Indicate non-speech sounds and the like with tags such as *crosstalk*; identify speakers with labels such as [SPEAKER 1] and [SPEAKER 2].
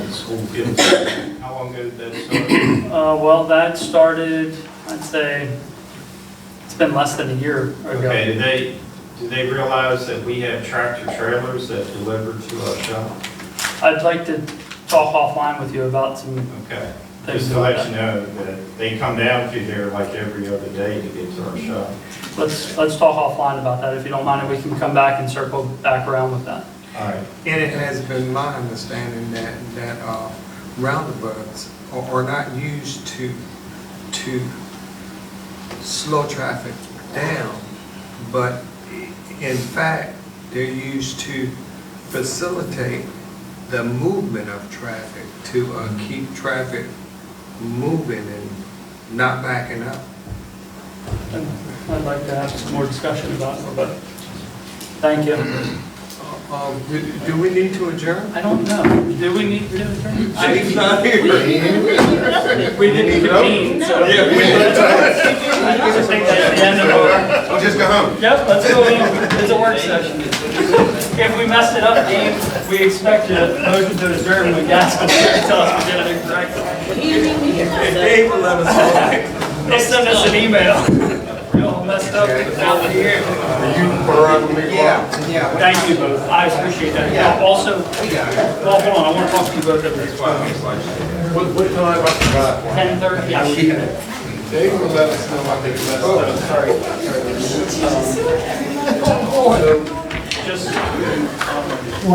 [SPEAKER 1] who gives, how long ago did that start?
[SPEAKER 2] Uh, well, that started, I'd say, it's been less than a year
[SPEAKER 1] Okay,
[SPEAKER 2] ago.
[SPEAKER 1] do they, do they realize that we have tractor trailers that deliver to our shop?
[SPEAKER 2] I'd like to talk offline with you about some
[SPEAKER 1] Okay,
[SPEAKER 2] things.
[SPEAKER 1] just to let
[SPEAKER 2] like
[SPEAKER 1] you know that they come down through there like every other day to get to our shop.
[SPEAKER 2] that. Let's, let's talk offline about that, if you don't mind, and we can come back and circle back around with that.
[SPEAKER 1] All right,
[SPEAKER 3] And it has been my understanding that, that uh, roundabouts are are not used to, to slow traffic down, but in fact, they're used to facilitate the movement of traffic, to uh, keep traffic moving and not backing up.
[SPEAKER 2] And I'd like to have some more discussion about it, but, thank you.
[SPEAKER 3] Uh, um, Do do we need to adjourn?
[SPEAKER 2] I don't know, do we need to do it?
[SPEAKER 3] Jake's not here.
[SPEAKER 2] We didn't convene, so. *laughs* I just think that's the end of our.
[SPEAKER 3] We'll just go home.
[SPEAKER 2] Yep, let's go, in. it's a work session. If we messed it up, Dean, we expect a motion to adjourn when Gaskell tell us we did it correctly.
[SPEAKER 3] Dave will let us know.
[SPEAKER 2] They'll send us an email. *laughs* You all messed up without the year.
[SPEAKER 3] Yeah, yeah.
[SPEAKER 2] Thank you both, I appreciate that. Also, well, hold on, I want to talk to you both at least
[SPEAKER 4] What, what time about the drive?
[SPEAKER 2] ten thirty. Oh, Yeah.
[SPEAKER 4] They will let us know, I think, let us know.
[SPEAKER 2] Just